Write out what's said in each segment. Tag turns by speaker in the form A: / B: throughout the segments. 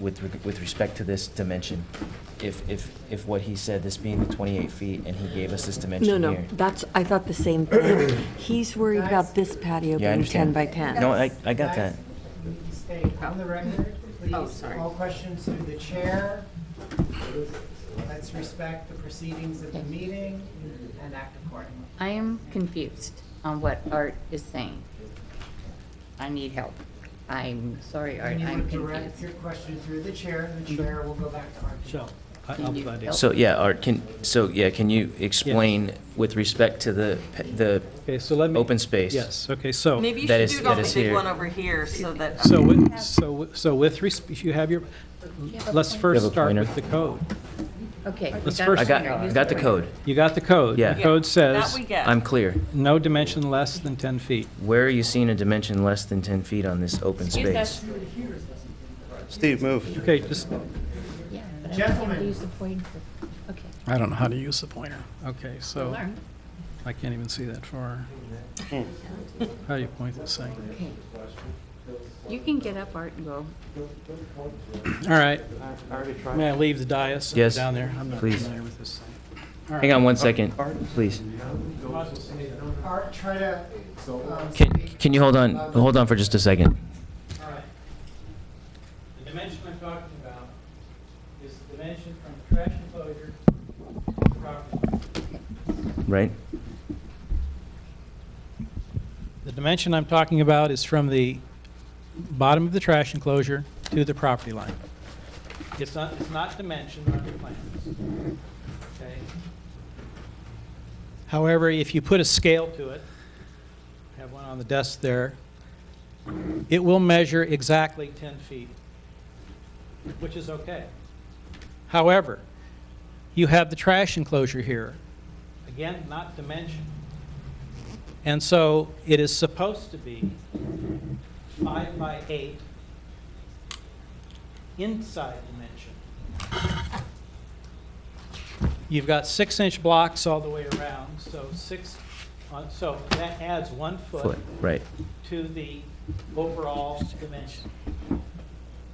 A: with, with respect to this dimension. If, if, if what he said, this being the 28 feet, and he gave us this
B: No,
A: dimension
B: no,
A: here.
B: that's, I thought the same thing. He's worried about this patio
A: Yeah, I
B: being 10
A: understand.
B: by 10.
A: No, I, I got that.
C: Guys, we Stay on the record,
D: Oh,
C: please.
D: sorry.
C: All questions through the chair. Let's respect the proceedings of the
D: Okay.
C: meeting and act accordingly.
D: I am confused on what Art is saying. I need help. I'm sorry, Art,
C: And you
D: I'm
C: would direct
D: confused.
C: your question through the chair, and the chair will go back to our.
E: So, I-
D: Can
E: I'll
D: you
E: provide
D: help?
E: it.
A: So, yeah, Art, can, so, yeah, can you explain with respect to the, pe- the
E: Okay, so let me.
A: open space?
E: Yes, okay, so,
F: Maybe you
A: That
F: should
A: is-
F: do it
A: that
F: on the
A: is
F: big
A: here.
F: one over here so that.
E: so, with- so, so with, resp- if you have your, let's
A: You
E: first
A: have a
E: start
A: pointer?
E: with the code.
D: Okay. we
E: Let's
D: got
E: first-
A: I
D: the
A: got,
D: pointer.
A: I
D: Use
A: got the
D: pointer.
A: code.
E: You got the code.
A: Yeah.
E: The
A: Yeah.
E: code
F: That
E: says,
F: we get.
A: I'm clear.
E: no dimension less than 10 feet.
A: Where are you seeing a dimension less than 10 feet on this open space?
G: Steve, move.
E: Okay, just,
D: Yeah, but I don't
C: Gentlemen.
D: want to use the pointer. Okay,
H: I don't know how to use the pointer.
E: okay, so,
D: learn.
E: I can't even see that far. How do you point this thing?
D: Okay. You can get up, Art, and go.
E: All right,
G: I already
E: may I leave the dais and
A: Yes,
E: down there? I'm not
A: please.
E: familiar with this thing.
A: Hang on one second, please.
C: Art, try to. um,
A: Can,
C: speak.
A: can you hold on, hold on for just a second?
E: All right. The dimension I'm talking about is the dimension from trash enclosure to the property line.
A: Right?
E: The dimension I'm talking about is from the bottom of the trash enclosure to the property line. It's not, it's not dimensioned on your plans. Okay? However, if you put a scale to it, I have one on the desk there, it will measure exactly 10 feet, which is okay. However, you have the trash enclosure here. Again, not dimensioned. And so it is supposed to be five by eight inside dimension. You've got six-inch blocks all the way around, so six, uh, so that adds one
A: Foot,
E: foot
A: right.
E: to the overall dimension.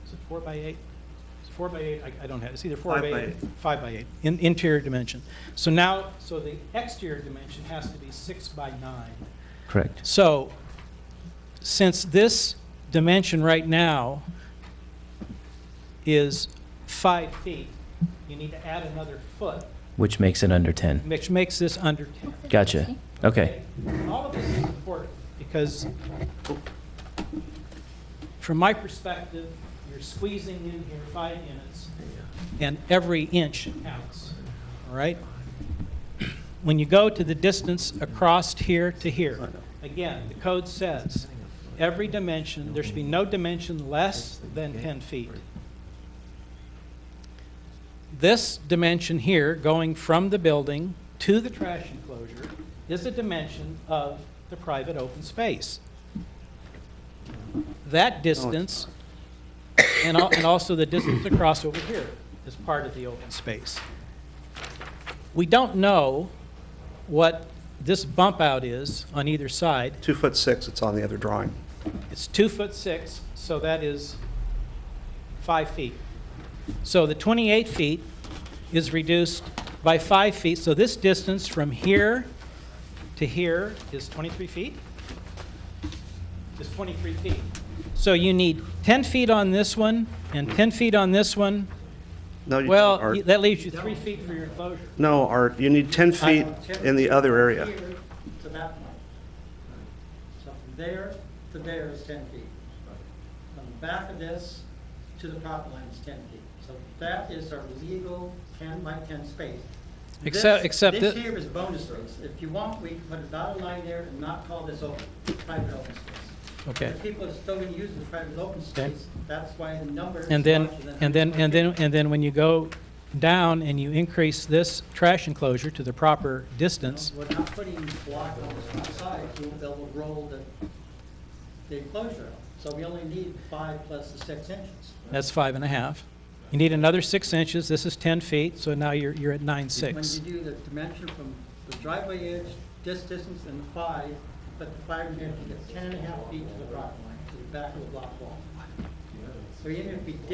E: Is it four by eight? It's four by eight, I- I don't have, it's either four
G: Five
E: by
G: by
E: eight, five by eight, in- interior dimension. So now, so the exterior dimension has to be six by nine.
A: Correct.
E: So, since this dimension right now is five feet, you need to add another foot,
A: Which makes it under 10.
E: which makes this under 10.
A: Gotcha. Okay.
E: All of this is important, because from my perspective, you're squeezing in here five units, and every inch counts, all right? When you go to the distance across here to here, again, the code says, every dimension, there should be no dimension less than 10 feet. This dimension here, going from the building to the trash enclosure, is a dimension of the private open space. That distance, and al- and also the distance across over here, is part of the open space. We don't know what this bump out is on either side.
G: Two foot six, it's on the other drawing.
E: It's two foot six, so that is five feet. So the 28 feet is reduced by five feet, so this distance from here to here is 23 feet? Is 23 feet. So you need 10 feet on this one and 10 feet on this one.
G: No, you don't,
E: Well,
G: Art.
E: that leaves you three feet for your enclosure.
G: No, Art, you need 10 feet in the other area.
E: Here to that point. So from there to there is 10 feet. From the back of this to the property line is 10 feet. So that is our legal 10 by 10 space.
I: Except-
E: This-
I: except
E: This
I: thi-
E: here is bonus space. If you want, we can put a dotted line there and not call this open, private open space.
I: Okay.
E: If people are still going to use the private open space, that's why the number is
I: And then,
E: larger than
I: and then, and then, and then when you go down and you increase this trash enclosure to the proper distance,
E: We're not putting block on the front side, we'll, they'll roll the, the enclosure out. So we only need five plus the six inches.
I: that's five and a half. You need another six inches, this is 10 feet, so now you're, you're at
E: When
I: nine six.
E: you do the dimension from the driveway edge, this distance and the five, but the five, you have to get ten and a half feet to the property line, to the back of the block wall. So even if we